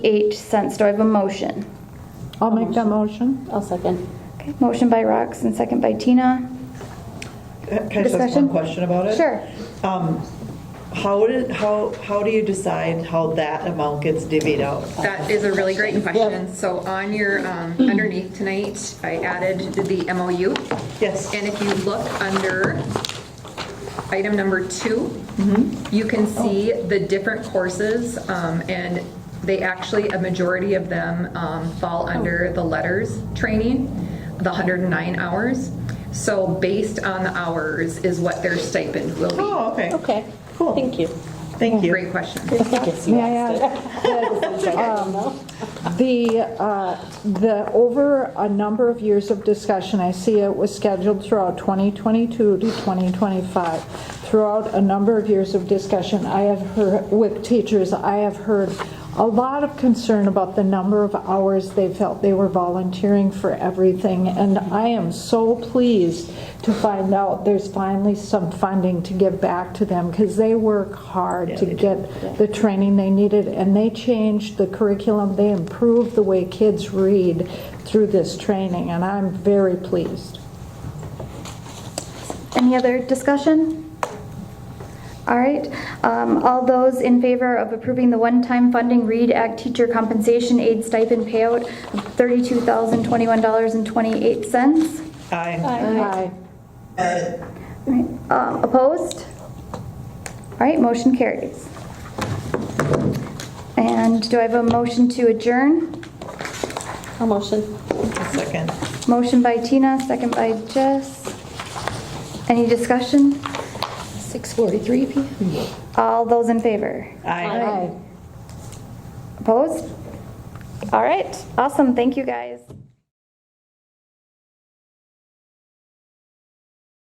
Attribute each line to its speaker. Speaker 1: eight cents. Do I have a motion?
Speaker 2: I'll make that motion.
Speaker 3: I'll second.
Speaker 1: Okay, motion by Rox and second by Tina.
Speaker 4: Can I just ask
Speaker 1: Discussion?
Speaker 4: one question about it?
Speaker 1: Sure.
Speaker 4: Um, How did, how, how do you decide how that amount gets divvied out?
Speaker 5: That is a really great question. So on your, um, underneath tonight, I added the MOU.
Speaker 4: Yes.
Speaker 5: And if you look under item number two,
Speaker 4: Mm-hmm.
Speaker 5: you can see the different courses, um, and they actually, a majority of them um, fall
Speaker 4: Oh.
Speaker 5: under the letters training, the 109 hours. So based on the hours is what their stipend will be.
Speaker 4: Oh, okay.
Speaker 3: Okay.
Speaker 4: Cool.
Speaker 3: Thank you.
Speaker 4: Thank you.
Speaker 5: Great question.
Speaker 3: I guess you
Speaker 2: May I
Speaker 3: asked it.
Speaker 2: Um, The, uh, the, over a number of years of discussion, I see it was scheduled throughout 2022 to 2025. Throughout a number of years of discussion, I have heard, with teachers, I have heard a lot of concern about the number of hours they felt they were volunteering for everything. And I am so pleased to find out there's finally some funding to give back to them because they work hard to get the training they needed. And they changed the curriculum, they improved the way kids read through this training, and I'm very pleased.
Speaker 1: Any other discussion? All right, um, all those in favor of approving the one-time funding READ Act teacher compensation aid stipend payout of $32,021.28?
Speaker 4: Aye.
Speaker 2: Aye.
Speaker 1: Right, uh, Opposed? All right, motion carries. And do I have a motion to adjourn?
Speaker 3: I'll motion.
Speaker 4: Second.
Speaker 1: Motion by Tina, second by Jess. Any discussion?
Speaker 3: 6:43 PM.
Speaker 1: All those in favor?
Speaker 4: Aye.
Speaker 2: Aye.
Speaker 1: Opposed? All right, awesome, thank you guys.